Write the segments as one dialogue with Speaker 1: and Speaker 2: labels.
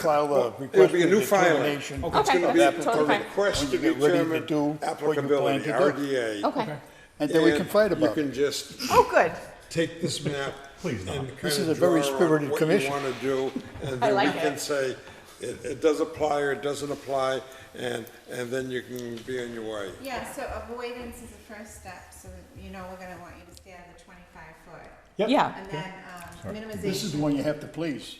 Speaker 1: file a request
Speaker 2: It'll be a
Speaker 1: for
Speaker 2: new filing. It's
Speaker 1: determination
Speaker 2: going to
Speaker 1: of
Speaker 2: be
Speaker 1: applicability.
Speaker 2: a
Speaker 1: When
Speaker 3: fine.
Speaker 2: request to
Speaker 1: you get ready
Speaker 2: determine
Speaker 1: do what you plan to
Speaker 2: applicability,
Speaker 1: do.
Speaker 2: RDA.
Speaker 3: Okay.
Speaker 1: And then we can fight
Speaker 2: And
Speaker 1: about
Speaker 2: You
Speaker 1: it.
Speaker 2: can just
Speaker 3: Oh, good.
Speaker 2: take this map and kind of
Speaker 1: is a very
Speaker 2: draw on
Speaker 1: spirited commission.
Speaker 2: What you want to do, and
Speaker 3: I
Speaker 2: then we
Speaker 3: like
Speaker 2: can
Speaker 3: it.
Speaker 2: say, it, it does apply or it doesn't apply, and, and then you can be on your way.
Speaker 4: Yeah, so avoidance is the first step, so that you know we're gonna want you to stay on the twenty-five foot.
Speaker 3: Yeah.
Speaker 4: And then, um,
Speaker 1: This is the
Speaker 4: minimization,
Speaker 1: one you have to please.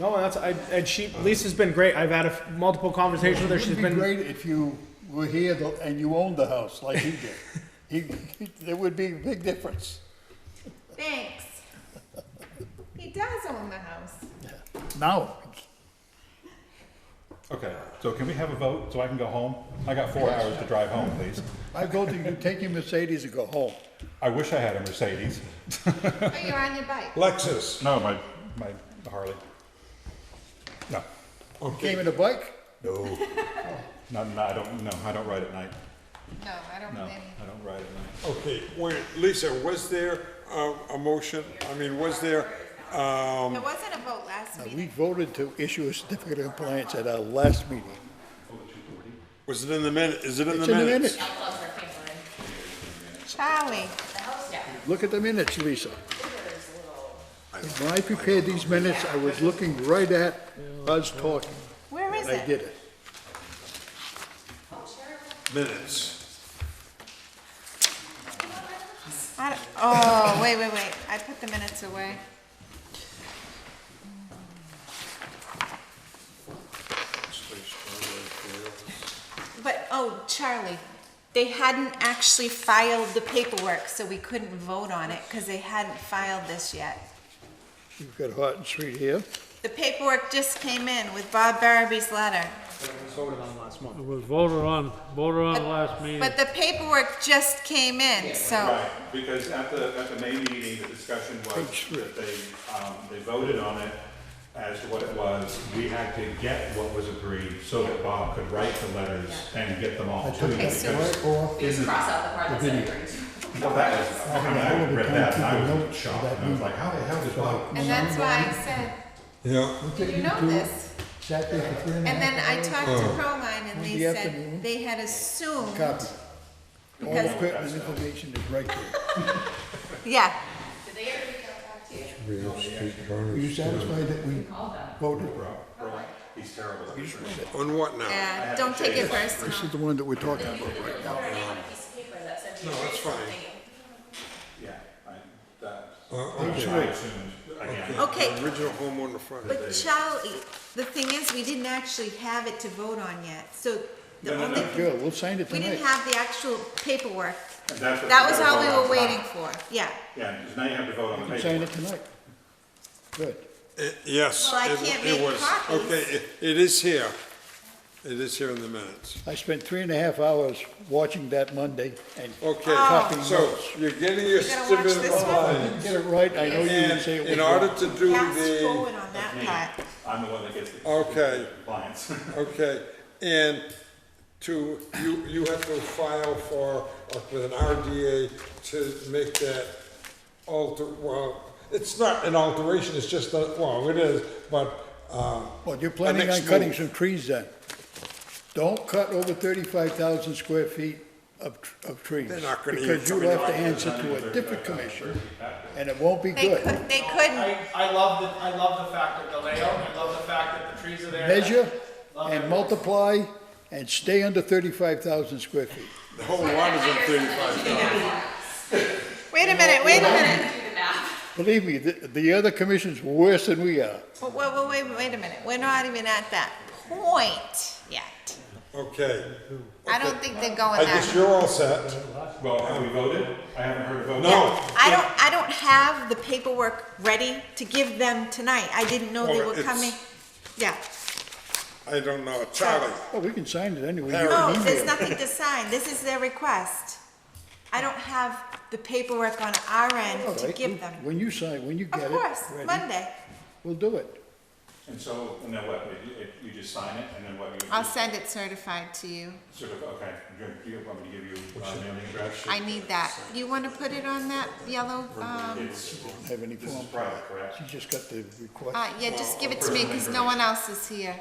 Speaker 5: No, that's I, and she Lisa's been great. I've had a f- multiple conversations with her. She's
Speaker 1: It'd be
Speaker 5: been
Speaker 1: great if you were here tho- and you owned the house like he did. He, there would be a big difference.
Speaker 4: thanks. He does own the house.
Speaker 1: Now,
Speaker 6: Okay, so can we have a vote so I can go home? I got four hours to drive home, please.
Speaker 1: I go to, you take your Mercedes and go home.
Speaker 6: I wish I had a Mercedes.
Speaker 4: But you're on your bike.
Speaker 2: Lexus,
Speaker 6: No, my, my Harley. No,
Speaker 1: Came in a bike?
Speaker 6: no. No, no, I don't, no, I don't ride at night.
Speaker 4: No, I don't
Speaker 6: No,
Speaker 4: blame
Speaker 6: I don't ride at night.
Speaker 2: okay, wait, Lisa, was there a, a motion, I mean, was there, um,
Speaker 4: you. It wasn't a vote last
Speaker 1: We
Speaker 4: meeting.
Speaker 1: voted to issue a certificate of compliance at our last meeting.
Speaker 2: was it in the minute, is it in the
Speaker 1: It's in the
Speaker 2: minutes?
Speaker 1: minutes.
Speaker 4: Charlie,
Speaker 1: Look at the minutes, Lisa. When I prepared these minutes, I was looking right at us talking.
Speaker 4: where is
Speaker 1: I
Speaker 4: it?
Speaker 1: did it.
Speaker 2: Minutes.
Speaker 4: I don't- Oh, wait, wait, wait, I put the minutes away. But, oh, Charlie, they hadn't actually filed the paperwork, so we couldn't vote on it, because they hadn't filed this yet.
Speaker 1: You've got hot and sweet here.
Speaker 4: The paperwork just came in with Bob Baraby's letter.
Speaker 7: It was voted on, voted on last meeting.
Speaker 4: But the paperwork just came in, so,
Speaker 6: Right, because at the, at the May meeting, the discussion was that they, um, they voted on it as to what it was. We had to get what was agreed so that Bob could write the letters and get them all to you. because- Well, that was, I mean, I read that and I was shocked. And I was uh, like, how the hell did Bob?
Speaker 4: and that's why I said,
Speaker 2: Yeah,
Speaker 4: you know this.
Speaker 1: Sat there for three and a
Speaker 4: And
Speaker 1: half
Speaker 4: then I talked to
Speaker 2: Oh.
Speaker 4: Proline, and they
Speaker 1: afternoon.
Speaker 4: said they had assumed,
Speaker 1: copies. All the
Speaker 4: Because-
Speaker 1: pertinent information is right there.
Speaker 4: yeah,
Speaker 1: Are you satisfied that we voted?
Speaker 6: He's terrible.
Speaker 2: on what now?
Speaker 4: yeah, uh, don't take it personal.
Speaker 1: This is the one that we're talking about right now.
Speaker 2: No, that's fine.
Speaker 6: Yeah, I, that.
Speaker 2: Uh, okay.
Speaker 6: I assumed, again,
Speaker 4: Okay,
Speaker 2: Original home on the front.
Speaker 4: But Charlie, the thing is, we didn't actually have it to vote on yet, so the only,
Speaker 1: Good, we'll sign it
Speaker 4: we didn't
Speaker 1: tonight.
Speaker 4: have the actual paperwork.
Speaker 6: that's what
Speaker 4: That was
Speaker 6: we
Speaker 4: all we
Speaker 6: voted
Speaker 4: were
Speaker 6: on.
Speaker 4: waiting for, yeah.
Speaker 6: Yeah, because now you have to vote on the
Speaker 1: Sign it
Speaker 6: paper.
Speaker 1: tonight. Good.
Speaker 2: It- Yes.
Speaker 4: Well, I
Speaker 2: it-
Speaker 4: can't
Speaker 2: it
Speaker 4: make
Speaker 2: was.
Speaker 4: copies.
Speaker 2: Okay, it- it is here. It is here in the minutes.
Speaker 1: I spent three and a half hours watching that Monday and
Speaker 2: Okay,
Speaker 1: Copy
Speaker 2: so
Speaker 1: notes.
Speaker 2: you're getting your
Speaker 4: Oh. gotta watch
Speaker 2: certificate
Speaker 4: this
Speaker 2: of
Speaker 4: one?
Speaker 2: compliance.
Speaker 1: get it right, I know you would
Speaker 2: And
Speaker 1: say it was
Speaker 2: in
Speaker 1: wrong.
Speaker 2: order to do
Speaker 4: Fast
Speaker 2: the,
Speaker 4: forward on that part.
Speaker 6: I'm the one that gets the.
Speaker 2: Okay.
Speaker 6: Compliance.
Speaker 2: okay, and to, you, you have to file for, uh, with an RDA to make that alter, well, it's not an alteration, it's just, a- well, it is, but, um,
Speaker 1: Well, you're planning on
Speaker 2: next
Speaker 1: cutting
Speaker 2: move.
Speaker 1: some trees then. Don't cut over thirty-five thousand square feet of, tr- of trees.
Speaker 2: They're not gonna hear
Speaker 1: Because you'll
Speaker 2: coming
Speaker 1: have to answer to a different commission, and it won't be
Speaker 4: They
Speaker 1: good.
Speaker 4: could, they couldn't,
Speaker 8: I, I love the, I love the fact of the layout, I love the fact that the trees are there.
Speaker 1: Measure
Speaker 8: Love
Speaker 1: and
Speaker 8: it.
Speaker 1: multiply and stay under thirty-five thousand square feet.
Speaker 2: the whole lot is in thirty-five dollars.
Speaker 4: wait a minute, wait a minute,
Speaker 1: Believe me, the, the other commission's worse than we are.
Speaker 4: wait, wait, wait, wait a minute, we're not even at that point yet.
Speaker 2: Okay,
Speaker 4: I don't think they're going
Speaker 2: I guess
Speaker 4: that.
Speaker 2: you're all set.
Speaker 6: Well, have we voted? I haven't heard a vote.
Speaker 2: No.
Speaker 4: I don't, I don't have the paperwork ready to give them tonight, I didn't know they
Speaker 2: Well,
Speaker 4: were
Speaker 2: it's-
Speaker 4: coming, yeah.
Speaker 2: I don't know, Charlie.
Speaker 1: Well, we can sign it anyway. You
Speaker 4: No,
Speaker 1: can email
Speaker 4: there's
Speaker 1: it.
Speaker 4: nothing to sign, this is their request. I don't have the paperwork on our
Speaker 1: All
Speaker 4: end to
Speaker 1: right,
Speaker 4: give them.
Speaker 1: When you sign, when you get
Speaker 4: Of
Speaker 1: it.
Speaker 4: course,
Speaker 1: ready,
Speaker 4: Monday.
Speaker 1: We'll do it.
Speaker 6: And so, and then what, you, you just sign it, and then what, you
Speaker 4: I'll send it certified to you.
Speaker 6: sort of, okay, do you want me to give you a mailing address?
Speaker 4: I need that. You want to put it on that yellow, um,
Speaker 6: It's,
Speaker 1: Have any
Speaker 6: this is
Speaker 1: form?
Speaker 6: private, correct?
Speaker 1: You just got the request.
Speaker 4: uh, yeah, just give it to me because no one else is here.